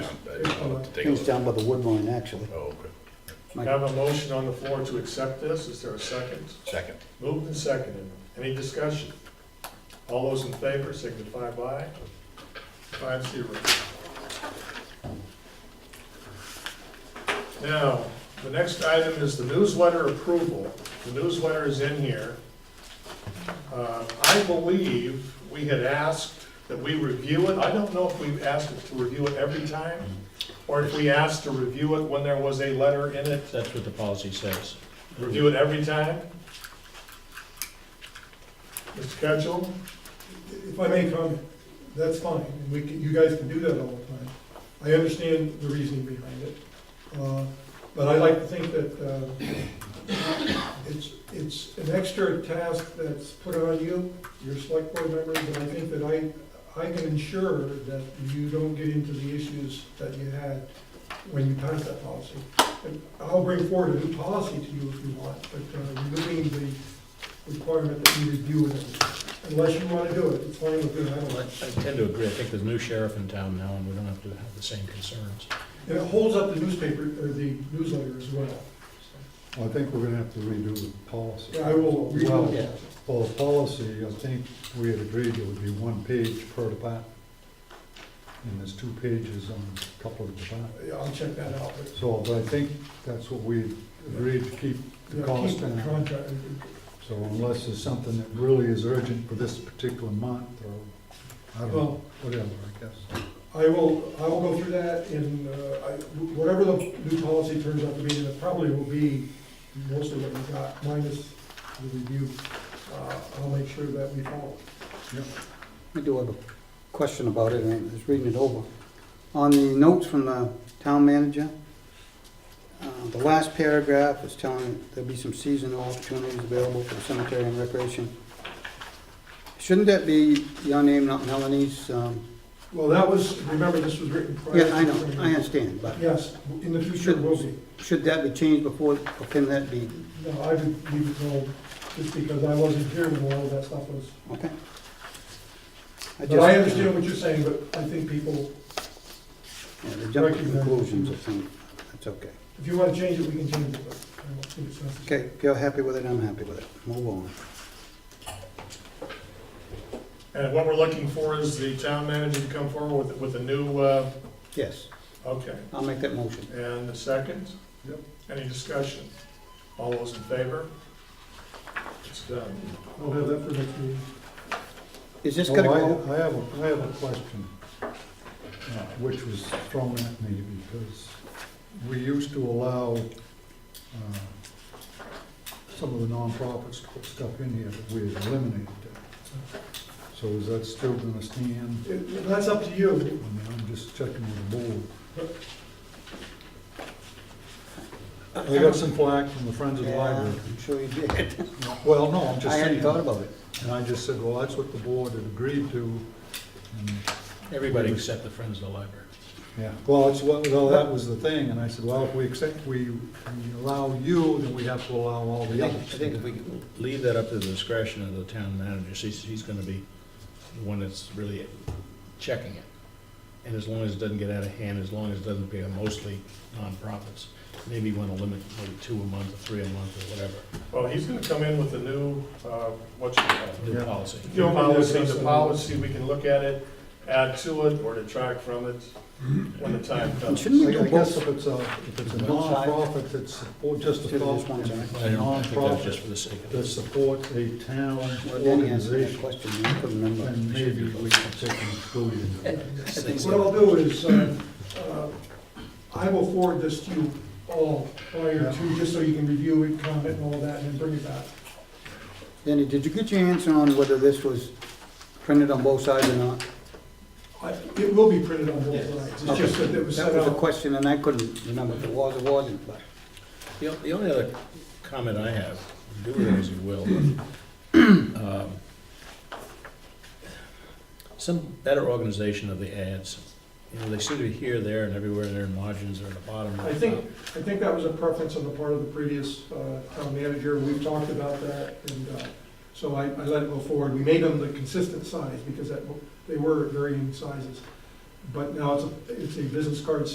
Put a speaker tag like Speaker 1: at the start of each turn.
Speaker 1: I'll have to take a
Speaker 2: Things
Speaker 1: look.
Speaker 2: down by the wood line, actually.
Speaker 1: Oh, okay.
Speaker 2: Mike?
Speaker 3: Have a motion on the floor to accept this, is there a second?
Speaker 1: Second.
Speaker 3: Moved and seconded, any discussion? All those in favor signify by five zero. Now, the next item is the newsletter approval. The newsletter is in here. Uh, I believe we had asked that we review it. I don't know if we've asked it to review it every time, or if we asked to review it when there was a letter in it,
Speaker 4: That's what the policy says.
Speaker 3: review it every time. Mr. Ketchel?
Speaker 5: If I may comment, that's fine, and we can, you guys can do that all the time. I understand the reasoning behind it, uh, but I like to think that, uh, it's, it's an extra task that's put on you, your select board members, and I think that I, I can ensure that you don't get into the issues that you had when you passed that policy. And I'll bring forward a new policy to you if you want, but, uh, removing the requirement that you review it Unless you want to do it, it's fine with me, I don't
Speaker 4: I
Speaker 5: like.
Speaker 4: tend to agree. I think there's a new sheriff in town now, and we don't have to have the same concerns.
Speaker 5: And it holds up the newspaper, or the newsletter as well.
Speaker 6: I think we're gonna have to redo the policy.
Speaker 5: Yeah, I will read
Speaker 6: Well,
Speaker 5: it.
Speaker 6: Well, the policy, I think we had agreed it would be one page per department. And there's two pages on a couple of departments.
Speaker 5: Yeah, I'll check that out, but.
Speaker 6: So, but I think that's what we agreed to keep the
Speaker 5: yeah,
Speaker 6: cost
Speaker 5: keep the
Speaker 6: down.
Speaker 5: contract.
Speaker 6: So unless there's something that really is urgent for this particular month, or, I don't know,
Speaker 5: Well-
Speaker 6: whatever, I guess.
Speaker 5: I will, I will go through that and, uh, I, whatever the new policy turns out to be, and it probably will be mostly what we got, minus the review. Uh, I'll make sure that we follow.
Speaker 2: I do have a question about it, and I was reading it over. On the notes from the town manager, uh, the last paragraph is telling there'll be some seasonal opportunities available for the cemetery and recreation. Shouldn't that be your name, not Melanie's? um,
Speaker 5: Well, that was, remember, this was written prior.
Speaker 2: Yeah, I
Speaker 5: to-
Speaker 2: know, I understand, but
Speaker 5: Yes, in the future, it will be.
Speaker 2: should that be changed before, or can that be,
Speaker 5: No, I would leave it alone, just because I wasn't here when all of that stuff was.
Speaker 2: okay?
Speaker 5: But
Speaker 2: just-
Speaker 5: I understand what you're saying, but I think people,
Speaker 2: Yeah, they jump to conclusions, I think, that's okay.
Speaker 5: if you want to change it, we can change it, but I don't think it's necessary.
Speaker 2: Okay, if you're happy with it, I'm happy with it, move on.
Speaker 3: And what we're looking for is the town manager to come forward with, with a new, uh,
Speaker 2: Yes,
Speaker 3: okay,
Speaker 2: I'll make that motion.
Speaker 3: and the second?
Speaker 6: Yep.
Speaker 3: Any discussion? All those in favor? It's done.
Speaker 5: I'll have that for next meeting.
Speaker 2: Is this
Speaker 6: Oh,
Speaker 2: gonna
Speaker 6: I-
Speaker 2: go,
Speaker 6: I have, a I have a question, uh, which was thrown at me because we used to allow uh, some of the nonprofits to put stuff in here, but we had eliminated that. So is that still gonna stand?
Speaker 5: It- That's up to you.
Speaker 6: I mean, I'm just checking with the board. I got some flack from the Friends of the
Speaker 2: Yeah,
Speaker 6: Library.
Speaker 2: I'm sure you did.
Speaker 6: Well, no, I'm
Speaker 2: I
Speaker 6: just saying.
Speaker 2: hadn't thought about it.
Speaker 6: And I just said, well, that's what the board had agreed to, and
Speaker 4: Everybody except the Friends of the Library.
Speaker 6: Yeah, well, it's, well, well, that was the thing, and I said, well, if we accept, we we allow you, then we have to allow all
Speaker 4: I
Speaker 6: the
Speaker 4: think, I
Speaker 6: others.
Speaker 4: think if we could leave that up to the discretion of the town manager, he's, he's gonna be the one that's really checking it. And as long as it doesn't get out of hand, as long as it doesn't be mostly nonprofits, maybe you wanna limit maybe two a month, or three a month, or whatever,
Speaker 3: Well, he's gonna come in with a new, uh, what you call it?
Speaker 4: new
Speaker 6: Yeah.
Speaker 4: policy.
Speaker 3: New policy, the policy, we can look at it, add to it, or detract from it when the time
Speaker 2: And
Speaker 3: comes.
Speaker 2: shouldn't we
Speaker 6: I
Speaker 2: do
Speaker 6: I guess
Speaker 2: both?
Speaker 6: if it's a, if it's a
Speaker 2: One side.
Speaker 6: nonprofit that supports, just
Speaker 2: Just
Speaker 6: a thought,
Speaker 2: one side.
Speaker 6: a
Speaker 4: I don't, I think that's just
Speaker 6: nonprofit
Speaker 4: for the sake of
Speaker 6: that
Speaker 4: it.
Speaker 6: supports a town
Speaker 2: Well, Danny answered that
Speaker 6: organization,
Speaker 2: question, I couldn't remember.
Speaker 6: then maybe we can take an exclusion.
Speaker 4: I think
Speaker 5: What I'll
Speaker 4: so.
Speaker 5: do is, uh, uh, I will forward this to you all prior to, just so you can review it, comment and all that, and then bring it back.
Speaker 2: Danny, did you get your answer on whether this was printed on both sides or not?
Speaker 5: I- It will be printed on both sides, it's just that it was
Speaker 2: That
Speaker 5: set
Speaker 2: was a
Speaker 5: out.
Speaker 2: question, and I couldn't remember if it was or wasn't, but
Speaker 4: The the only other comment I have, do with it as you will, but, um, some better organization of the ads. You know, they seem to be here, there, and everywhere, they're in margins, they're in the bottom.
Speaker 5: I think, I think that was a preference on the part of the previous uh, town manager, we've talked about that, and uh, so I, I let it go forward. We made them the consistent size, because that, they were varying sizes, but now it's, a- it's a business card